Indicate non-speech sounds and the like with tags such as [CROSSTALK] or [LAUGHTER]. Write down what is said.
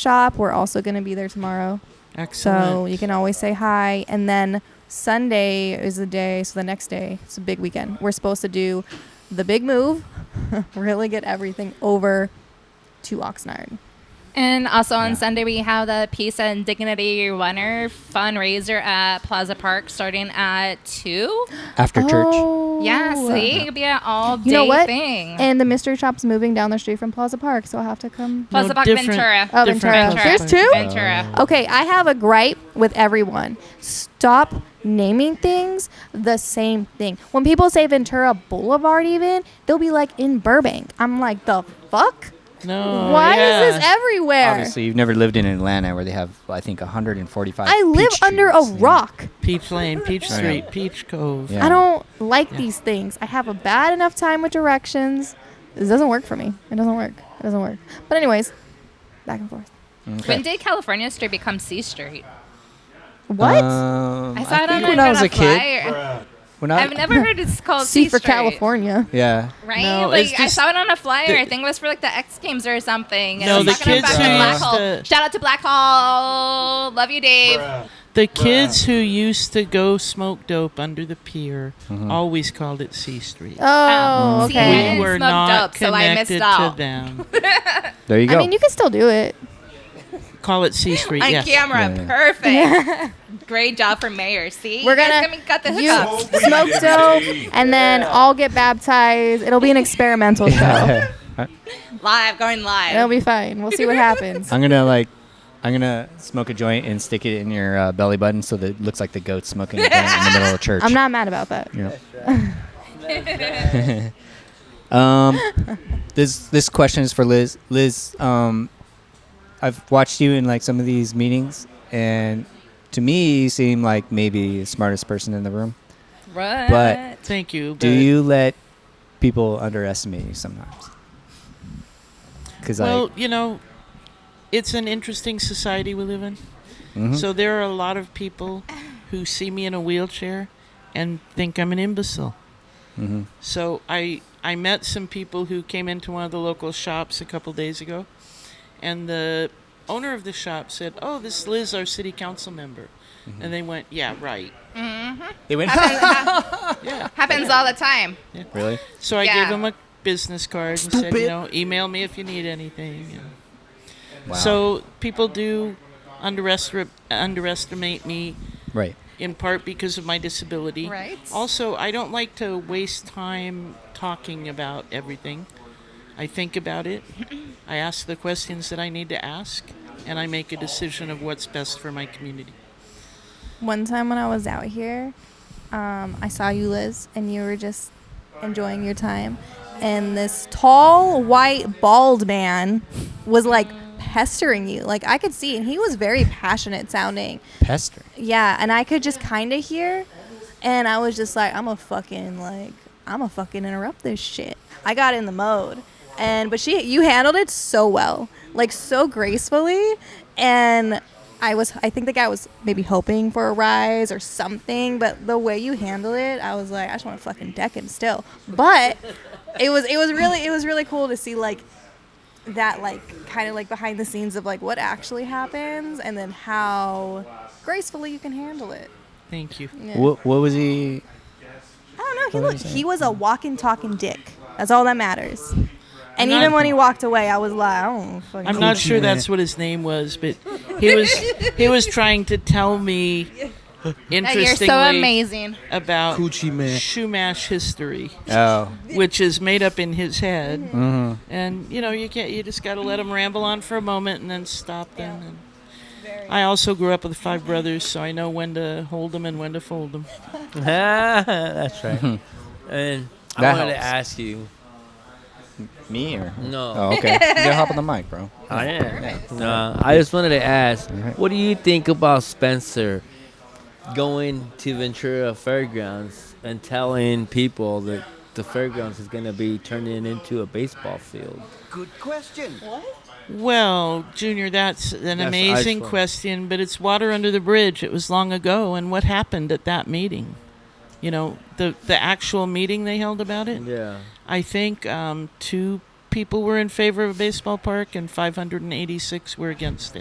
shop. We're also going to be there tomorrow. Excellent. So you can always say hi. And then Sunday is the day. So the next day, it's a big weekend. We're supposed to do the big move, [LAUGHS] really get everything over to Oxnard. And also on Yeah. Sunday, we have the Peace and Dignity Runner fundraiser at Plaza Park starting at 2. after church. Yeah, see? It could be an all day You know what? thing. Oh. And the mystery shop's moving down the street from Plaza Park, so I'll have to come. Plaza No, Park different- Ventura. Oh, different Ventura. Plaza There's Park. two? Ventura. Oh. Okay, I have a gripe with everyone. Stop naming things the same thing. When people say Ventura Boulevard, even, they'll be like in Burbank. I'm like, the fuck? No. Why is yeah. this everywhere? Oh, Obviously, you've never lived in Atlanta where they have, I think, 145. I live peach under a trees. rock. Peach Lane, Peach I know. Street, Peach Cove. Yeah. I don't like Yeah. these things. I have a bad enough time with directions. This doesn't work for me. It doesn't work. It doesn't work. But, anyways, back and forth. Okay. When did California Street become C Street? What? Um, I saw it on think a- when I was on a kid. flyer. When I, I've [LAUGHS] never heard it's called C C, for Street, California. Yeah. Right? No, like it's I just- saw it on a flyer. the- I think it was for like the X Games or something. And No, it the was talking kids about who Black used Hole. to- Shout out to Black Hole. Love you, Dave. The kids who used to go smoke dope under the pier Mm-hmm. always called it C Street. Oh, Oh, see, I okay. didn't We were smoke not dope, so I missed connected to out. them. There you go. I mean, you [LAUGHS] can still do it. Call it C Street. On yes. camera, Yeah. perfect. Great job for mayor. See, We're You guys gonna- got the You hookup. smoke dope, and then I'll get baptized. It'll be an experimental show. live, going live. It'll be fine. We'll see what happens. [LAUGHS] I'm gonna like, I'm gonna smoke a joint and stick it in your uh, belly button so that it looks like the goat smoking a joint in the [LAUGHS] middle of church. I'm not mad about that. You know. [LAUGHS] um, this this question is for Liz. Liz, um, I've watched you in like some of these meetings, and to me, you seem like maybe the smartest person in the room. Right. But- Thank you. Do but- you let people underestimate you sometimes? Because Well, you know, it's an interesting society we live in. So there are a lot of people who see me in a wheelchair and think I'm an imbecile. So I I met some people who came into one of the local shops a couple days ago, and the owner of the shop said, "Oh, this Liz, our city council member," and they went, "Yeah, right." they went Yeah. Happens all the time. really. So I Yeah. gave him a business card and said, Stupid. you know, email me if you need anything. and- So people do underestimate underestimate me right. in part because of my disability. Right. Also, I don't like to waste time talking about everything. I think about [LAUGHS] it. I ask the questions that I need to ask, and I make a decision of what's best for my community. One time when I was out here, um, I saw you, Liz, and you were just enjoying your time. And this tall, white, bald man was like pestering you. Like I could see, and he was very passionate sounding. Pester. Yeah, and I could just kind of hear, and I was just like, I'm a fucking like, I'm a fucking interrupt this shit. I got in the mode, and but she, you handled it so well, like so gracefully, and I was, I think the guy was maybe hoping for a rise or something, but the way you handled it, I was like, I just want to fucking deck him still, but it was, it was really, it was really cool to see like that like kind of like behind the scenes of like what actually happens and then how gracefully you can handle it. Thank you. Yeah. What, what was he? I don't know. He What looked, is it? he was a walking, talking dick. That's all that matters. And I'm even not- when he walked away, I was like, I don't fucking. I'm not Coochie sure that's Man. what his name was, but he [LAUGHS] was he was trying to tell me That you're interestingly so amazing. about Coochie man. Shumash history, Oh, which is made up in his head. Mm-hmm. And you know, you can't. You just got to let them ramble on for a moment and then stop them. And I also grew up with five brothers, so I know when to hold them and when to fold them. [LAUGHS] That's right. [LAUGHS] and I That wanted to helps. ask you. me or No. Oh, okay. Go hop on the mic, bro. I am. No, I just wanted to ask, Alright. what do you think about Spencer going to Ventura Fairgrounds and telling people that the fairgrounds is going to be turning into a baseball field? Good question. Well, Junior, that's an That's amazing ice one. question, but it's water under the bridge. It was long ago, and what happened at that meeting? You know, the the actual meeting they held about it. Yeah. I think um, two people were in favor of a baseball park and 586 were against it.